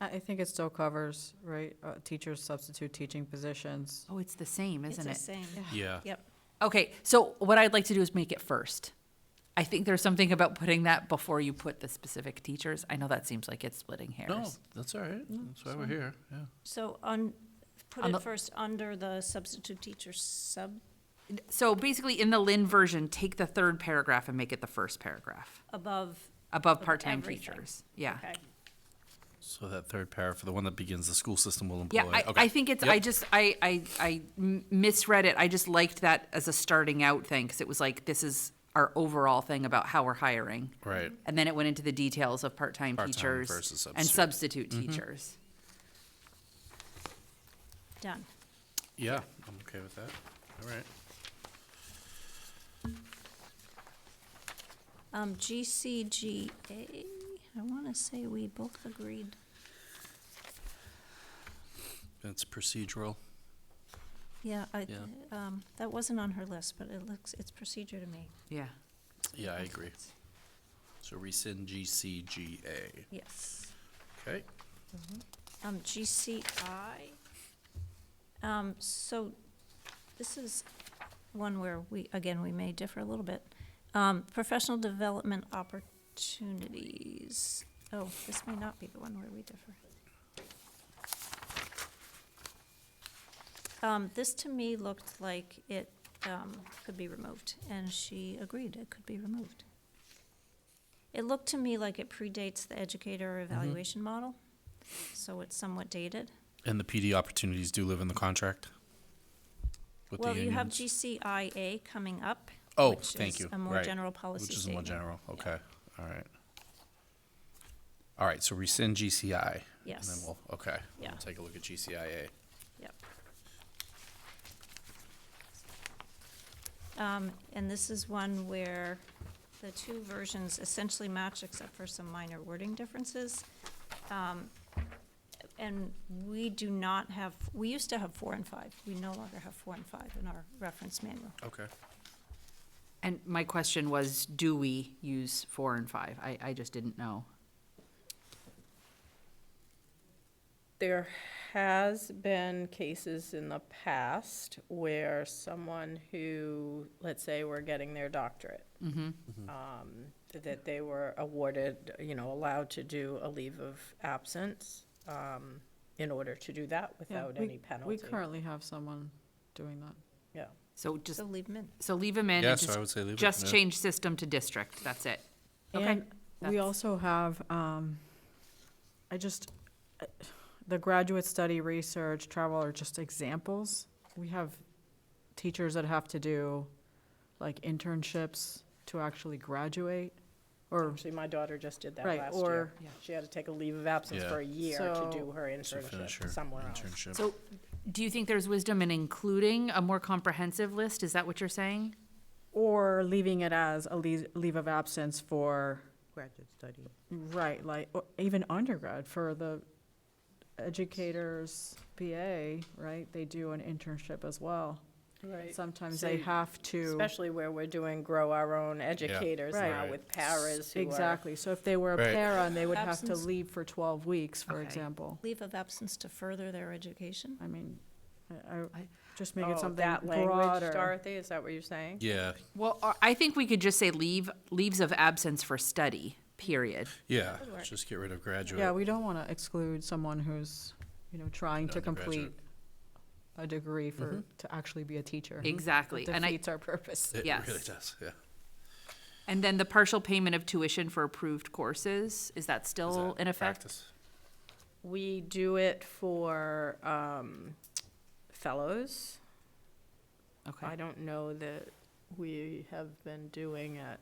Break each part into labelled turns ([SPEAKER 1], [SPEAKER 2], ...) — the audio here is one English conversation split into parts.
[SPEAKER 1] I, I think it still covers, right, uh, teachers substitute teaching positions.
[SPEAKER 2] Oh, it's the same, isn't
[SPEAKER 3] It's
[SPEAKER 2] it?
[SPEAKER 3] the same.
[SPEAKER 4] Yeah.
[SPEAKER 3] Yep.
[SPEAKER 2] Okay, so what I'd like to do is make it first. I think there's something about putting that before you put the specific teachers. I know that seems like it's splitting
[SPEAKER 4] No,
[SPEAKER 2] hairs.
[SPEAKER 4] that's all right. That's why we're here, yeah.
[SPEAKER 3] So on, put
[SPEAKER 2] On the-
[SPEAKER 3] it first under the substitute teacher sub,
[SPEAKER 2] So basically, in the Lynn version, take the third paragraph and make it the first paragraph
[SPEAKER 3] above,
[SPEAKER 2] above
[SPEAKER 3] Of
[SPEAKER 2] part-time
[SPEAKER 3] everything.
[SPEAKER 2] teachers. Yeah.
[SPEAKER 3] okay.
[SPEAKER 4] So that third para for the one that begins, the school system will employ.
[SPEAKER 2] Yeah, I,
[SPEAKER 4] Okay.
[SPEAKER 2] I think it's, I
[SPEAKER 4] Yep.
[SPEAKER 2] just, I, I, I m- misread it. I just liked that as a starting out thing, because it was like, this is our overall thing about how we're hiring.
[SPEAKER 4] Right.
[SPEAKER 2] And then it went into the details of part-time
[SPEAKER 4] Part-time
[SPEAKER 2] teachers
[SPEAKER 4] versus
[SPEAKER 2] and
[SPEAKER 4] substitute. Mm-hmm.
[SPEAKER 2] substitute teachers.
[SPEAKER 3] Done.
[SPEAKER 4] Yeah, I'm okay with that. All right.
[SPEAKER 3] Um, GCGA, I want to say we both agreed.
[SPEAKER 4] It's procedural.
[SPEAKER 3] Yeah, I,
[SPEAKER 4] Yeah.
[SPEAKER 3] um, that wasn't on her list, but it looks, it's procedure to me.
[SPEAKER 2] Yeah.
[SPEAKER 4] Yeah, I agree. So rescind GCGA.
[SPEAKER 3] Yes.
[SPEAKER 4] Okay.
[SPEAKER 3] Um, GCI. Um, so this is one where we, again, we may differ a little bit. Um, professional development opportunities. Oh, this may not be the one where we differ. Um, this to me looked like it, um, could be removed, and she agreed it could be removed. It looked to me like it predates the educator evaluation model, so it's somewhat dated.
[SPEAKER 4] And the PD opportunities do live in the contract? with the
[SPEAKER 3] Well, you have
[SPEAKER 4] unions?
[SPEAKER 3] GCIA coming up.
[SPEAKER 4] Oh,
[SPEAKER 3] which
[SPEAKER 4] thank
[SPEAKER 3] is
[SPEAKER 4] you.
[SPEAKER 3] A more
[SPEAKER 4] Right.
[SPEAKER 3] general policy
[SPEAKER 4] Which is more
[SPEAKER 3] statement.
[SPEAKER 4] general, okay, all right. All right, so rescind GCI. And then
[SPEAKER 3] Yes.
[SPEAKER 4] we'll, okay. we'll
[SPEAKER 3] Yeah.
[SPEAKER 4] Take a look at GCIA.
[SPEAKER 3] Yep. Um, and this is one where the two versions essentially match except for some minor wording differences. Um, and we do not have, we used to have four and five. We no longer have four and five in our reference manual.
[SPEAKER 4] Okay.
[SPEAKER 2] And my question was, do we use four and five? I, I just didn't know.
[SPEAKER 5] There has been cases in the past where someone who, let's say, were getting their doctorate,
[SPEAKER 1] Mm-hmm.
[SPEAKER 5] um, that they were awarded, you know, allowed to do a leave of absence um, in order to do that
[SPEAKER 1] Yeah,
[SPEAKER 5] without
[SPEAKER 1] we-
[SPEAKER 5] any penalty.
[SPEAKER 1] We currently have someone doing that.
[SPEAKER 5] Yeah.
[SPEAKER 2] So just,
[SPEAKER 3] So leave them in.
[SPEAKER 2] so leave them in
[SPEAKER 4] Yeah,
[SPEAKER 2] and
[SPEAKER 4] so I would
[SPEAKER 2] just,
[SPEAKER 4] say leave it,
[SPEAKER 2] just
[SPEAKER 4] yeah.
[SPEAKER 2] change system to district. That's it. Okay.
[SPEAKER 1] And we
[SPEAKER 2] That's-
[SPEAKER 1] also have, um, I just, uh, the graduate study, research, travel are just examples. We have teachers that have to do like internships to actually graduate or,
[SPEAKER 5] Actually, my daughter just did that
[SPEAKER 1] Right,
[SPEAKER 5] last
[SPEAKER 1] or-
[SPEAKER 5] year.
[SPEAKER 2] Yeah.
[SPEAKER 5] She had to take a leave of absence
[SPEAKER 4] Yeah.
[SPEAKER 5] for a year to
[SPEAKER 1] So-
[SPEAKER 5] do her
[SPEAKER 4] So finish
[SPEAKER 5] internship
[SPEAKER 4] your
[SPEAKER 5] somewhere else.
[SPEAKER 4] internship.
[SPEAKER 2] So do you think there's wisdom in including a more comprehensive list? Is that what you're saying?
[SPEAKER 1] or leaving it as a leave, leave of absence for,
[SPEAKER 6] graduate study.
[SPEAKER 1] right, like, or even undergrad for the educators, BA, right? They do an internship as well.
[SPEAKER 5] Right.
[SPEAKER 1] Sometimes
[SPEAKER 5] So
[SPEAKER 1] they
[SPEAKER 5] you-
[SPEAKER 1] have to.
[SPEAKER 5] Especially where we're doing grow our own educators
[SPEAKER 1] Right.
[SPEAKER 5] now
[SPEAKER 4] Right.
[SPEAKER 5] with paras who are.
[SPEAKER 1] Exactly, so if they were a
[SPEAKER 4] Right.
[SPEAKER 1] para and they would have to
[SPEAKER 3] Absence.
[SPEAKER 1] leave for twelve weeks, for
[SPEAKER 2] Okay.
[SPEAKER 1] example,
[SPEAKER 3] Leave of absence to further their education?
[SPEAKER 1] I mean, I, I,
[SPEAKER 2] I-
[SPEAKER 1] just make it
[SPEAKER 5] Oh,
[SPEAKER 1] something
[SPEAKER 5] that language,
[SPEAKER 1] broader.
[SPEAKER 5] Dorothy, is that what you're saying?
[SPEAKER 4] Yeah,
[SPEAKER 2] Well, I- I think we could just say leave, leaves of absence for study, period.
[SPEAKER 4] yeah,
[SPEAKER 3] Good work.
[SPEAKER 4] just get rid of graduate.
[SPEAKER 1] Yeah, we don't wanna exclude someone who's, you know, trying to complete
[SPEAKER 4] Undergraduate.
[SPEAKER 1] a degree for, to actually be a teacher.
[SPEAKER 2] Mm-hmm. Exactly. And I,
[SPEAKER 1] Defeats our purpose.
[SPEAKER 4] It
[SPEAKER 2] yes.
[SPEAKER 4] really does, yeah.
[SPEAKER 2] and then the partial payment of tuition for approved courses, is that
[SPEAKER 4] Is
[SPEAKER 2] still
[SPEAKER 4] that
[SPEAKER 2] in effect?
[SPEAKER 4] practice?
[SPEAKER 5] We do it for um, fellows. I
[SPEAKER 2] Okay,
[SPEAKER 5] don't know that we have been doing it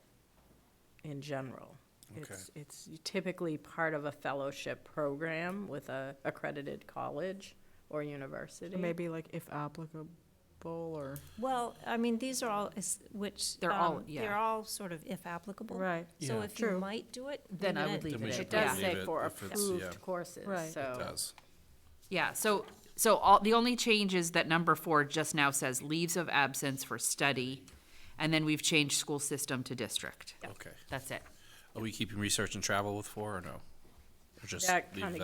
[SPEAKER 5] in general.
[SPEAKER 4] Okay.
[SPEAKER 5] It's, it's typically part of a fellowship program with a accredited college or university.
[SPEAKER 1] Maybe like if applicable or,
[SPEAKER 3] Well, I mean, these are all, is- which.
[SPEAKER 2] They're all-
[SPEAKER 3] um,
[SPEAKER 2] yeah.
[SPEAKER 3] They're all sort of if applicable.
[SPEAKER 1] right,
[SPEAKER 3] So
[SPEAKER 4] Yeah.
[SPEAKER 3] if you
[SPEAKER 1] True.
[SPEAKER 3] might do it.
[SPEAKER 2] Then
[SPEAKER 3] leave
[SPEAKER 2] I
[SPEAKER 3] it
[SPEAKER 2] would
[SPEAKER 3] in.
[SPEAKER 2] leave
[SPEAKER 4] Then we
[SPEAKER 2] it
[SPEAKER 4] should
[SPEAKER 2] in,
[SPEAKER 5] It
[SPEAKER 2] yeah.
[SPEAKER 5] does
[SPEAKER 4] Leave
[SPEAKER 5] say
[SPEAKER 4] it
[SPEAKER 5] for
[SPEAKER 4] if it's- yeah.
[SPEAKER 5] approved courses,
[SPEAKER 1] Right. It
[SPEAKER 5] so.
[SPEAKER 4] It does.
[SPEAKER 2] Yeah, so, so all, the only change is that number four just now says leaves of absence for study, and then we've changed school system to district.
[SPEAKER 4] Okay.
[SPEAKER 2] That's it.
[SPEAKER 4] Are we keeping research and travel with four or no? Or just
[SPEAKER 5] That
[SPEAKER 4] leave
[SPEAKER 5] kinda